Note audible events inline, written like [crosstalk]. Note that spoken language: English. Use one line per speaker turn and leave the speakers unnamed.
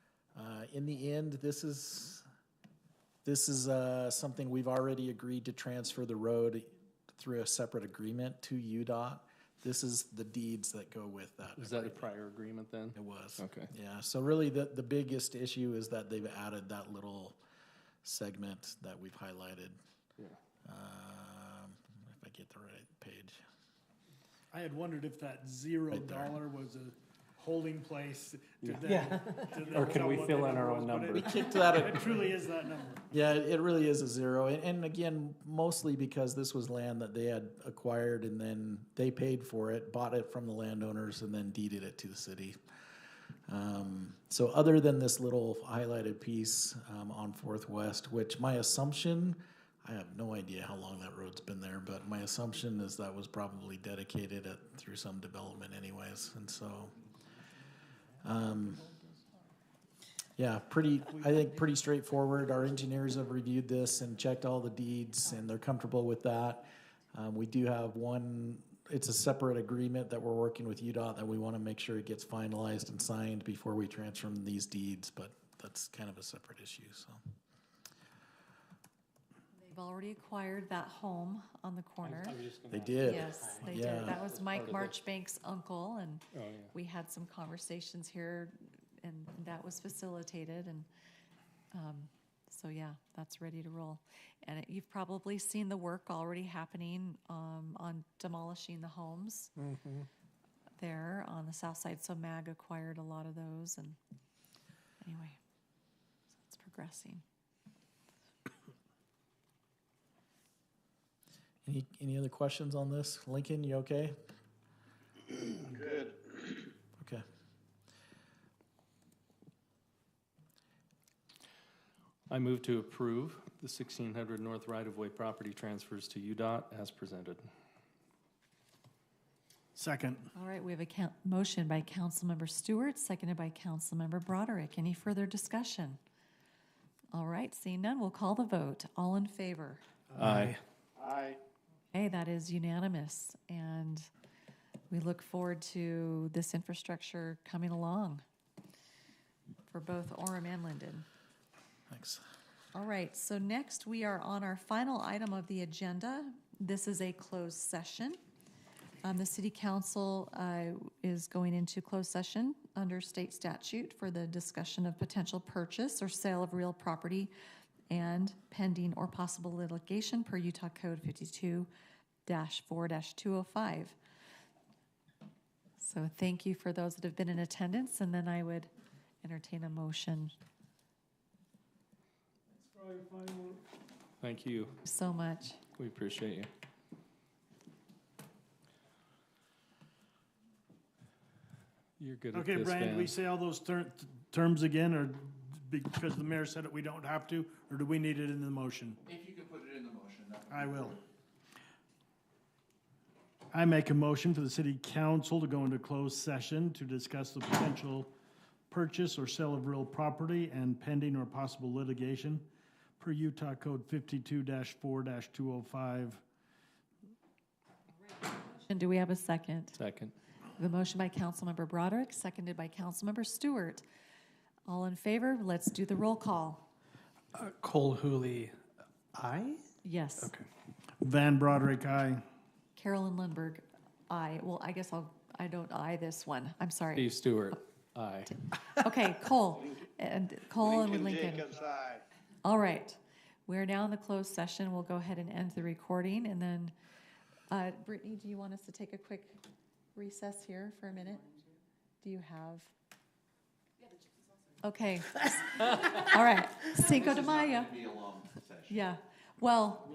Uh, in the end, this is, this is uh, something we've already agreed to transfer the road through a separate agreement to UDOT. This is the deeds that go with that.
Was that a prior agreement then?
It was.
Okay.
Yeah, so really the, the biggest issue is that they've added that little segment that we've highlighted.
Yeah.
Um, if I get the right page.
I had wondered if that zero
Right there.
dollar was a holding place to
Yeah.
them. to them
Or can
tell
we
what
fill
the
in our own
was, but
number?
it-
Kicked [laughs] that,
[laughs] It truly is that number.
yeah, it it really is a zero. And, and again, mostly because this was land that they had acquired and then they paid for it, bought it from the landowners and then deeded it to the city. Um, so other than this little highlighted piece, um, on Fourth West, which my assumption, I have no idea how long that road's been there, but my assumption is that was probably dedicated at, through some development anyways, and so. Um, yeah, pretty, I think pretty straightforward. Our engineers have reviewed this and checked all the deeds and they're comfortable with that. Um, we do have one, it's a separate agreement that we're working with UDOT that we want to make sure it gets finalized and signed before we transfer these deeds, but that's kind of a separate issue, so.
They've already acquired that home on the corner.
They did.
Yes, they
Yeah.
did. That was Mike
Part
Marchbank's uncle, and
Oh, yeah.
we had some conversations here, and that was facilitated, and, um, so yeah, that's ready to roll. And it- you've probably seen the work already happening, um, on demolishing the homes
Mm-hmm.
there on the south side, so MAG acquired a lot of those, and anyway, so it's progressing.
Any, any other questions on this? Lincoln, you okay? Good. Okay.
I move to approve the sixteen hundred north right-of-way property transfers to UDOT as presented.
Second.
All right, we have a coun- motion by Councilmember Stewart, seconded by Councilmember Broderick. Any further discussion? All right, seeing none, we'll call the vote. All in favor?
Aye.
Hey, that is unanimous, and we look forward to this infrastructure coming along for both Orem and Linden.
Thanks.
All right, so next we are on our final item of the agenda. This is a closed session. Um, the city council, uh, is going into closed session under state statute for the discussion of potential purchase or sale of real property and pending or possible litigation per Utah Code fifty-two four two oh five. So thank you for those that have been in attendance, and then I would entertain a motion.
Thank you.
So much.
We appreciate you. You're good at
Okay,
this,
Brian, do
Van.
we say all those ter- terms again, or because the mayor said it, we don't have to, or do we need it in the motion?
If you could put it in the motion, that would.
I will. I make a motion for the city council to go into closed session to discuss the potential purchase or sale of real property and pending or possible litigation per Utah Code fifty-two four two oh five.
And do we have a second?
Second.
The motion by Councilmember Broderick, seconded by Councilmember Stewart. All in favor, let's do the roll call.
Cole Hooley, aye?
Yes.
Van Broderick, aye.
Carolyn Lindberg, aye. Well, I guess I'll, I don't aye this one. I'm sorry.
Steve Stewart, aye.
Okay, Cole, and Cole and Lincoln. All right. We're now in the closed session. We'll go ahead and end the recording and then, uh, Brittany, do you want us to take a quick recess here for a minute? Do you have? Okay. [laughs] All right. Cinco de Mayo.
Be a long session.
Yeah. Well,